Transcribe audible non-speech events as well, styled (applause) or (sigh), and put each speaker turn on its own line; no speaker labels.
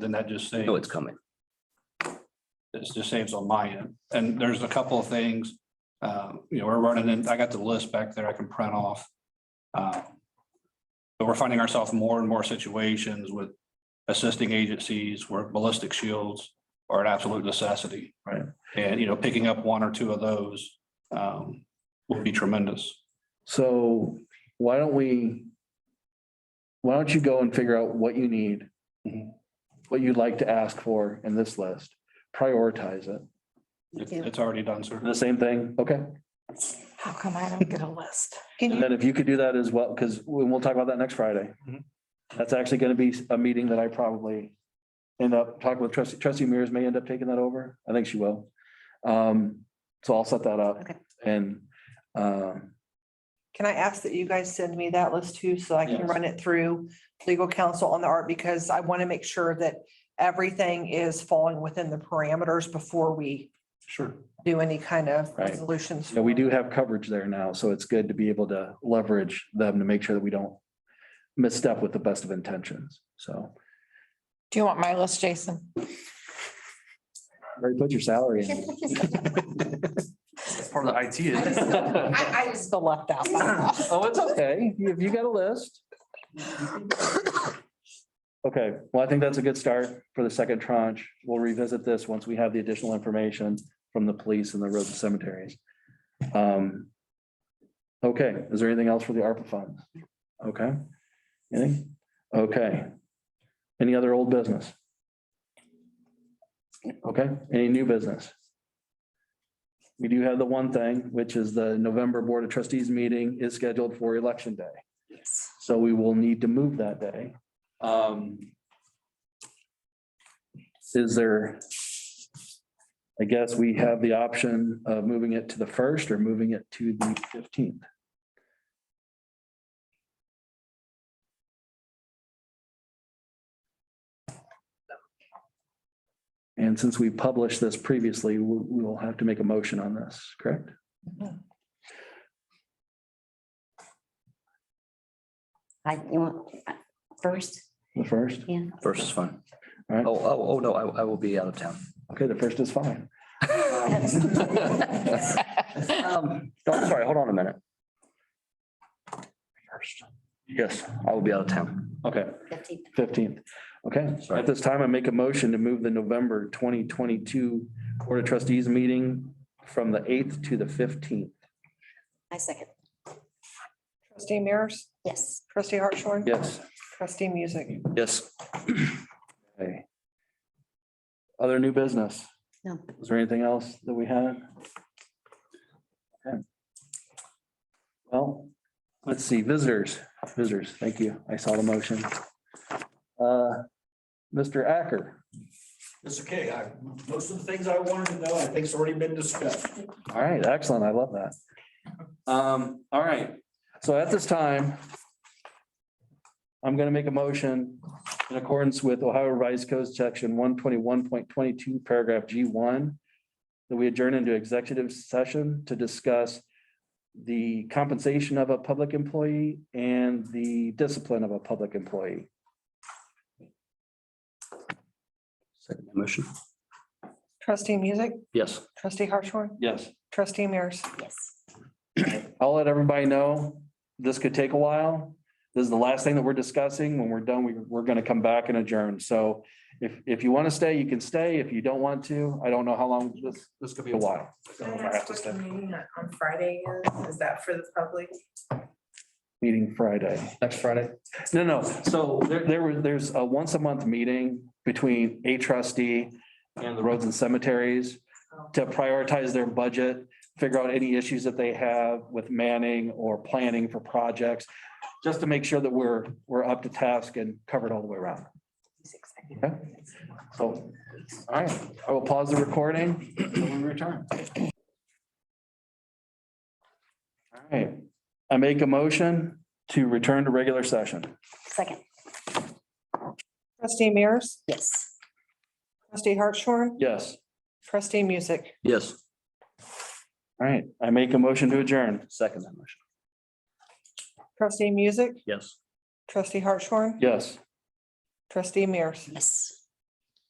Then that just saves,
No, it's coming.
it just saves on my end. And there's a couple of things. Uh, you know, we're running in, I got the list back there I can print off. Uh, But we're finding ourselves more and more situations with assisting agencies where ballistic shields are an absolute necessity.
Right.
And, you know, picking up one or two of those um, would be tremendous.
So why don't we? Why don't you go and figure out what you need? Mm-hmm.
Mhm.
What you'd like to ask for in this list, prioritize it.
It's
Yeah.
it's already done, sir.
The same thing. Okay,
How come I don't get a list? Can
and
you,
then if you could do that as well, because we will talk about that next Friday.
Mhm.
That's actually gonna be a meeting that I probably end up talking with trustee, trustee Mears may end up taking that over. I think she will. Um, so I'll set that up
Okay.
and, um,
Can I ask that you guys send me that list too, so I can
Yes.
run it through legal counsel on the art? Because I want to make sure that everything is falling within the parameters before we
Sure.
do any kind of
Right.
resolutions.
Yeah, we do have coverage there now, so it's good to be able to leverage them to make sure that we don't misstep with the best of intentions, so.
do you want my list, Jason?
Already put your salary in.
Part of the IT.
(laughs)
is-
I, I was the left out.
Oh, it's okay. If you got a list. Okay, well, I think that's a good start for the second tranche. We'll revisit this once we have the additional information from the police and the roads and cemeteries. Um. Okay, is there anything else for the ARPA funds? Okay. Anything? Okay. Any other old business? Okay, any new business? We do have the one thing, which is the November Board of Trustees meeting is scheduled for Election Day. So we will need to move that day. Um, Is there? I guess we have the option of moving it to the first or moving it to the fifteenth. And since we published this previously, we we will have to make a motion on this, correct?
I, you want, uh, first,
The first?
yeah.
First is fine.
All right.
Oh, oh, oh, no, I, I will be out of town.
Okay, the first is fine.
Um, no, I'm sorry, hold on a minute. First. Yes, I will be out of town.
Okay,
Fifteen.
fifteenth. Okay,
Sorry.
at this time, I make a motion to move the November twenty twenty-two Board of Trustees meeting from the eighth to the fifteenth.
I second,
Trustee Mears,
yes.
trustee Hartshorn,
Yes.
trustee Music.
Yes,
Okay. Other new business?
No.
Is there anything else that we had? Okay. Well, let's see, visitors, visitors, thank you. I saw the motion. Uh, Mr. Acker,
Mr. K, I, most of the things I wanted to know, I think's already been discussed.
all right, excellent. I love that. Um, all right, so at this time, I'm gonna make a motion in accordance with Ohio Revised Code Section one twenty-one point twenty-two, paragraph G one, that we adjourn into executive session to discuss the compensation of a public employee and the discipline of a public employee.
second motion.
Trustee Music,
Yes.
trustee Hartshorn,
Yes.
trustee Mears.
Yes.
I'll let everybody know, this could take a while. This is the last thing that we're discussing. When we're done, we, we're gonna come back and adjourn. So if, if you want to stay, you can stay. If you don't want to, I don't know how long, this, this could be a while. So
Can
if
I
I have
ask
to
what
stay.
the meeting on on Friday is? Is that for the public?
Meeting Friday.
Next Friday.
No, no, so there, there were, there's a once a month meeting between a trustee and the roads and cemeteries to prioritize their budget, figure out any issues that they have with manning or planning for projects, just to make sure that we're, we're up to task and covered all the way around. Okay? So, all right, I will pause the recording and we return. All right, I make a motion to return to regular session.
Second,
Trustee Mears,
yes.
trustee Hartshorn,
Yes,
trustee Music.
Yes,
all right, I make a motion to adjourn.
second that motion.
Trustee Music,
Yes.
trustee Hartshorn,
Yes.
trustee Mears.
Yes.